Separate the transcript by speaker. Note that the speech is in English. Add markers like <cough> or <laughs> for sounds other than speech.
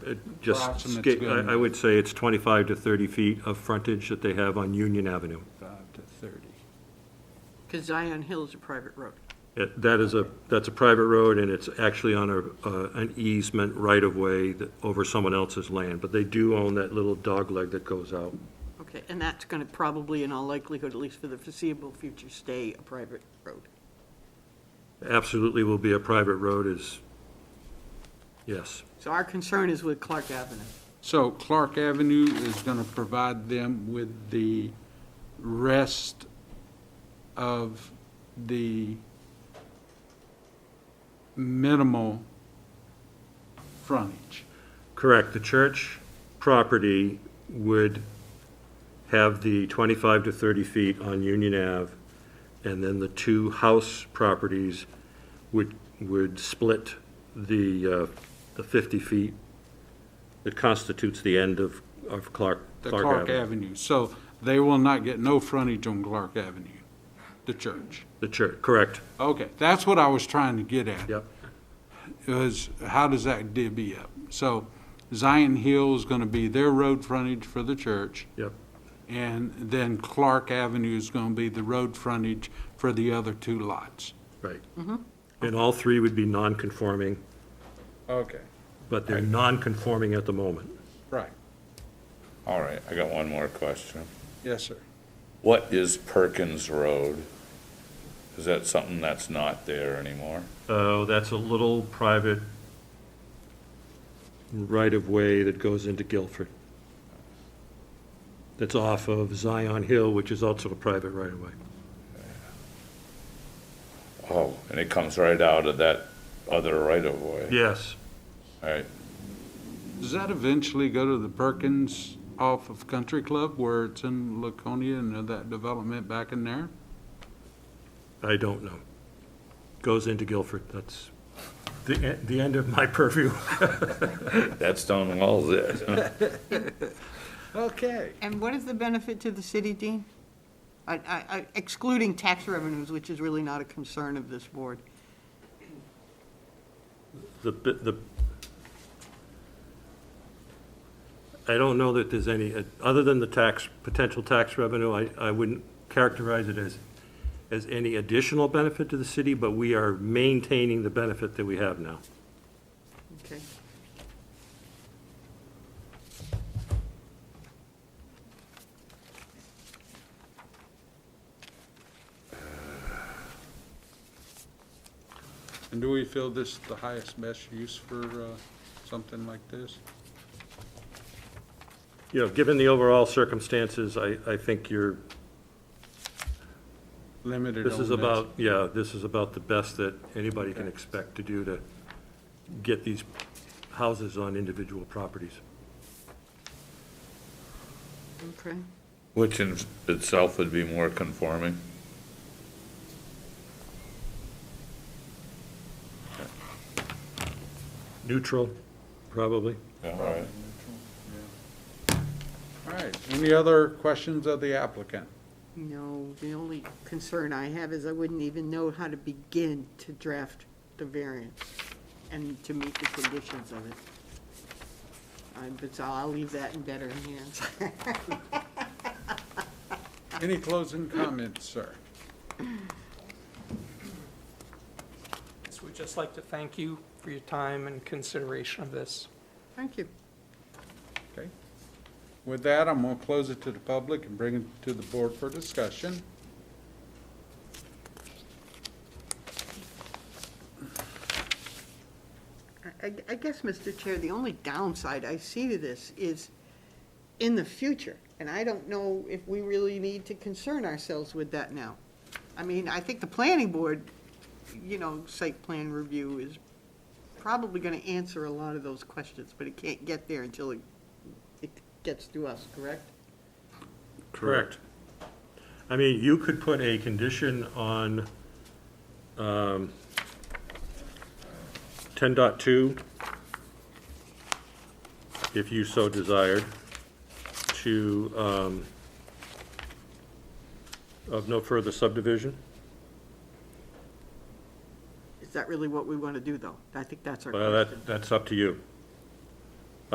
Speaker 1: Uh, Just,
Speaker 2: Approximate's
Speaker 1: sca-
Speaker 2: good.
Speaker 1: I I would say it's 25 to 30 feet of frontage that they have on Union Avenue.
Speaker 2: Five to thirty.
Speaker 3: Because Zion Hill is a private road.
Speaker 1: It- That is a, that's a private road, and it's actually on a, uh, an easement right-of-way that- over someone else's land, but they do own that little dogleg that goes out.
Speaker 3: Okay, and that's going to probably, in all likelihood, at least for the foreseeable future, stay a private road.
Speaker 1: Absolutely will be a private road is, yes.
Speaker 3: So our concern is with Clark Avenue.
Speaker 2: So Clark Avenue is going to provide them with the rest of the minimal frontage.
Speaker 1: Correct, the church property would have the 25 to 30 feet on Union Ave, and then the two house properties would, would split the, uh, the 50 feet that constitutes the end of, of Clark,
Speaker 2: The
Speaker 1: Clark Avenue.
Speaker 2: Avenue. So they will not get no frontage on Clark Avenue, the church.
Speaker 1: The church, correct,
Speaker 2: Okay, that's what I was trying to get at.
Speaker 1: yep.
Speaker 2: Is how does that divvy up? So Zion Hill is going to be their road frontage for the church.
Speaker 1: Yep.
Speaker 2: And then Clark Avenue is going to be the road frontage for the other two lots.
Speaker 1: Right. And all three would be non-conforming,
Speaker 2: Okay.
Speaker 1: but they're non-conforming at the moment.
Speaker 2: Right,
Speaker 4: All right, I got one more question.
Speaker 2: yes, sir.
Speaker 4: What is Perkins Road? Is that something that's not there anymore?
Speaker 1: Oh, that's a little private right-of-way that goes into Guilford. That's off of Zion Hill, which is also a private right-of-way.
Speaker 4: Oh, and it comes right out of that other right-of-way?
Speaker 1: Yes.
Speaker 4: All right,
Speaker 2: Does that eventually go to the Perkins off of Country Club where it's in Laconia and that development back in there?
Speaker 1: I don't know. Goes into Guilford, that's the, e- the end of my purview. <laughs>
Speaker 4: that's done well there.
Speaker 2: Okay.
Speaker 3: And what is the benefit to the city, Dean? I- I- I- Excluding tax revenues, which is really not a concern of this board.
Speaker 1: The, bi- the, I don't know that there's any, uh, other than the tax, potential tax revenue, I, I wouldn't characterize it as, as any additional benefit to the city, but we are maintaining the benefit that we have now.
Speaker 3: Okay.
Speaker 2: And do we feel this is the highest, best use for uh, something like this?
Speaker 1: You know, given the overall circumstances, I, I think you're,
Speaker 2: Limited on
Speaker 1: this is about, yeah, this is about the best that anybody can expect to do to get these houses on individual properties.
Speaker 3: Okay.
Speaker 4: <laughs> Which in itself would be more conforming?
Speaker 1: Neutral, probably.
Speaker 4: Yeah, all right.
Speaker 2: All right, any other questions of the applicant?
Speaker 3: No, the only concern I have is I wouldn't even know how to begin to draft the variance and to meet the conditions of it. I- But so I'll leave that in better hands. <laughs>
Speaker 2: Any closing comments, sir?
Speaker 5: So we'd just like to thank you for your time and consideration of this.
Speaker 3: Thank you.
Speaker 2: Okay. With that, I'm going to close it to the public and bring it to the board for discussion.
Speaker 3: I- I I guess, Mr. Chair, the only downside I see to this is in the future, and I don't know if we really need to concern ourselves with that now. I mean, I think the planning board, you know, site plan review is probably going to answer a lot of those questions, but it can't get there until it it gets to us, correct?
Speaker 1: Correct. I mean, you could put a condition on um, 10.2, if you so desired, to, um, of no further subdivision.
Speaker 3: Is that really what we want to do, though? I think that's our
Speaker 1: Well,
Speaker 3: question.
Speaker 1: that, that's up to you.